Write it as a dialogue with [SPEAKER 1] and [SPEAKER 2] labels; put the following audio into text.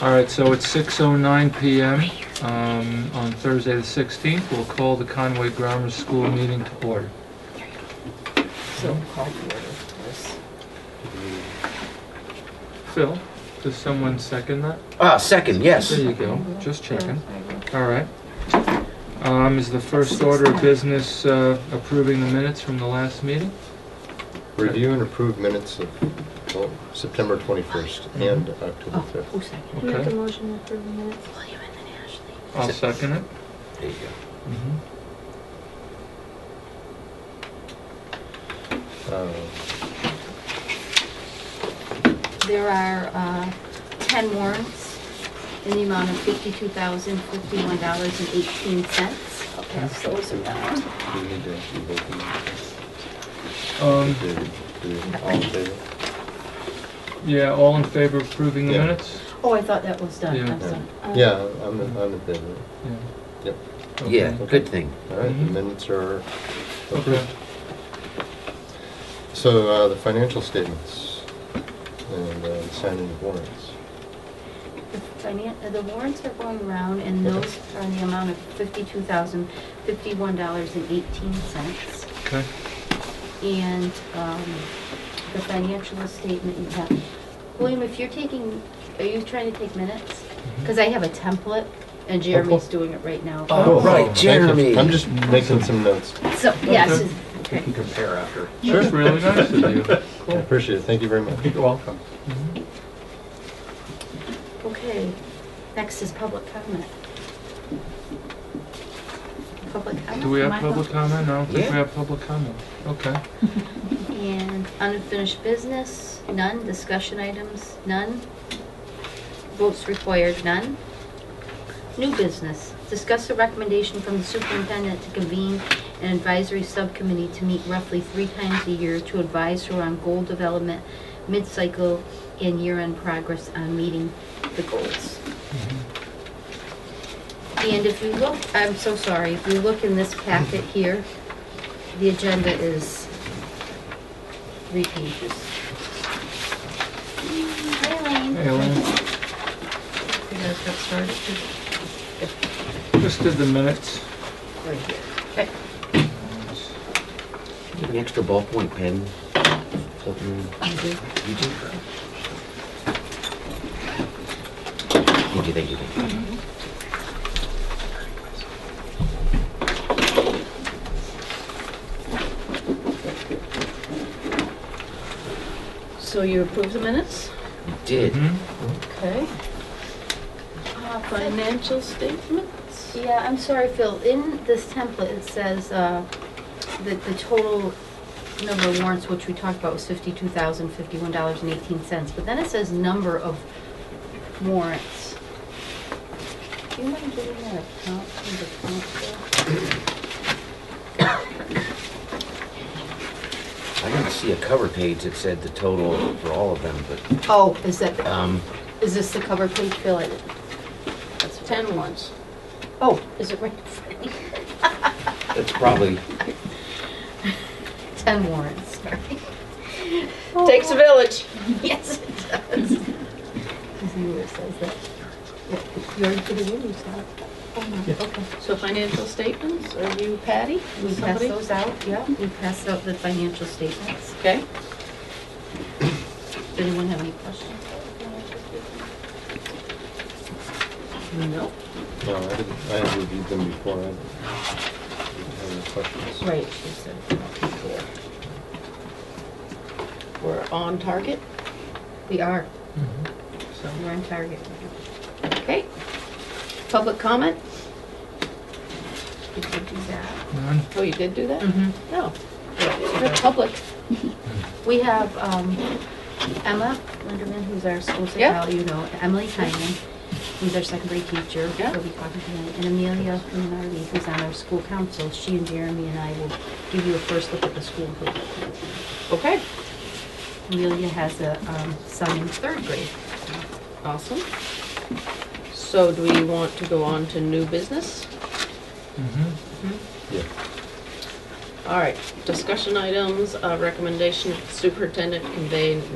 [SPEAKER 1] All right, so it's 6:09 PM um, on Thursday, the 16th. We'll call the Conway Grammar School meeting to order.
[SPEAKER 2] So call to order, of course.
[SPEAKER 1] Phil, does someone second that?
[SPEAKER 3] Ah, second, yes.
[SPEAKER 1] There you go, just checking. All right. Um, Is the first order of business uh, approving the minutes from the last meeting?
[SPEAKER 4] Review and approve minutes of well, September 21st and October 5th.
[SPEAKER 2] Who
[SPEAKER 5] Make
[SPEAKER 2] seconded?
[SPEAKER 5] a
[SPEAKER 1] Okay,
[SPEAKER 5] motion to approve the minutes.
[SPEAKER 2] William and then Ashley.
[SPEAKER 1] I'll second it.
[SPEAKER 3] There you
[SPEAKER 1] Mhm.
[SPEAKER 4] Uh,
[SPEAKER 5] There are uh, 10 warrants in the amount of $52,051.18.
[SPEAKER 2] I'll pass those
[SPEAKER 4] Do
[SPEAKER 2] around.
[SPEAKER 4] we need to vote on
[SPEAKER 1] Um,
[SPEAKER 4] that? Do- do- All in favor?
[SPEAKER 1] Yeah, all in favor of approving the
[SPEAKER 4] Yeah.
[SPEAKER 1] minutes?
[SPEAKER 5] Oh, I thought that was done.
[SPEAKER 1] Yeah.
[SPEAKER 5] I'm sorry. Uh,
[SPEAKER 4] Yeah, I'm, in- I'm in favor.
[SPEAKER 1] Yeah.
[SPEAKER 4] Yep.
[SPEAKER 3] go.
[SPEAKER 1] Okay.
[SPEAKER 3] Yeah, good thing.
[SPEAKER 4] All right,
[SPEAKER 1] Mhm.
[SPEAKER 4] the minutes are
[SPEAKER 1] Okay.
[SPEAKER 4] approved. So uh, the financial statements and uh, signing of warrants.
[SPEAKER 5] The finan- uh, The warrants are going around, and those are in the amount of $52,051.18.
[SPEAKER 1] Okay.
[SPEAKER 5] And um, the financial statement you have. William, if you're taking, are you trying to take minutes?
[SPEAKER 1] Mm-hmm.
[SPEAKER 5] Because I have a template, and Jeremy's doing it right now.
[SPEAKER 3] Oh, right,
[SPEAKER 4] Thank you.
[SPEAKER 3] Jeremy.
[SPEAKER 4] I'm just making some notes.
[SPEAKER 5] So, yes,
[SPEAKER 1] Okay.
[SPEAKER 5] okay.
[SPEAKER 6] compare after.
[SPEAKER 1] That's really nice of you.
[SPEAKER 4] I
[SPEAKER 1] Cool.
[SPEAKER 4] appreciate it. Thank you very much.
[SPEAKER 6] You're welcome.
[SPEAKER 5] Okay, next is public comment. Public comment?
[SPEAKER 1] Do we have
[SPEAKER 5] Michael?
[SPEAKER 1] public comment? I don't think we
[SPEAKER 3] Yeah.
[SPEAKER 1] have public comment. Okay.
[SPEAKER 5] And unfinished business, none, discussion items, none. Votes required, none. New business, discuss a recommendation from the superintendent to convene an advisory subcommittee to meet roughly three times a year to advise her on goal development, mid-cycle, and year-end progress on meeting the goals. And if you look, I'm so sorry, if you look in this packet here, the agenda is three pages. Hi, Elaine.
[SPEAKER 1] Hey, Elaine,
[SPEAKER 5] You guys got started?
[SPEAKER 1] just did the minutes.
[SPEAKER 5] Right here. Okay.
[SPEAKER 3] Get an extra ballpoint pen. Something you do. Thank you, thank you, thank you.
[SPEAKER 2] So you approve the minutes?
[SPEAKER 3] You Did.
[SPEAKER 1] Mhm.
[SPEAKER 2] Okay. Uh, Financial statements?
[SPEAKER 5] Yeah, I'm sorry, Phil. In this template, it says uh, that the total number of warrants, which we talked about, was fifty-two thousand, fifty-one dollars and eighteen cents. But then it says number of warrants. Do you mind giving that a count, the count, Phil?
[SPEAKER 3] I didn't see a cover page that said the total for all of them, but,
[SPEAKER 5] Oh, is that, the-
[SPEAKER 3] um,
[SPEAKER 5] is this the cover page, Phil? I didn't- That's ten.
[SPEAKER 2] Ten ones.
[SPEAKER 5] Oh, is it right in front of me?
[SPEAKER 3] it's probably,
[SPEAKER 5] Ten warrants, sorry.
[SPEAKER 2] Takes a village.
[SPEAKER 5] Yes, it does. His neighbor says that. Yeah, You already put it in, you saw it. Oh, no, okay.
[SPEAKER 2] So financial statements, are you Patty?
[SPEAKER 5] We pass
[SPEAKER 2] Somebody?
[SPEAKER 5] those out, yeah, we passed out the financial statements.
[SPEAKER 2] Okay.
[SPEAKER 5] Anyone have any questions?
[SPEAKER 2] No.
[SPEAKER 4] No, I didn't, I had reviewed them before. I didn't have any questions.
[SPEAKER 2] Right, she said. We're on target?
[SPEAKER 5] We are,
[SPEAKER 1] So,
[SPEAKER 5] we're on target.
[SPEAKER 2] Okay. Public comment?
[SPEAKER 5] Did you do that?
[SPEAKER 1] none?
[SPEAKER 2] Oh, you did do that?
[SPEAKER 5] Mm-hmm.
[SPEAKER 2] No. You're public.
[SPEAKER 5] We have um, Emma Linderman, who's our school
[SPEAKER 2] Yeah.
[SPEAKER 5] psychologist, you know, Emily Tynan, who's our second grade teacher,
[SPEAKER 2] Yeah.
[SPEAKER 5] we'll be talking to tonight, and Amelia Lunardi, who's on our school council. She and Jeremy and I will give you a first look at the school.
[SPEAKER 2] Okay.
[SPEAKER 5] Amelia has a um, son in third grade.
[SPEAKER 2] Awesome. So do we want to go on to new business?
[SPEAKER 1] Mhm.
[SPEAKER 4] Yeah.
[SPEAKER 2] All right, discussion items, uh, recommendation superintendent convey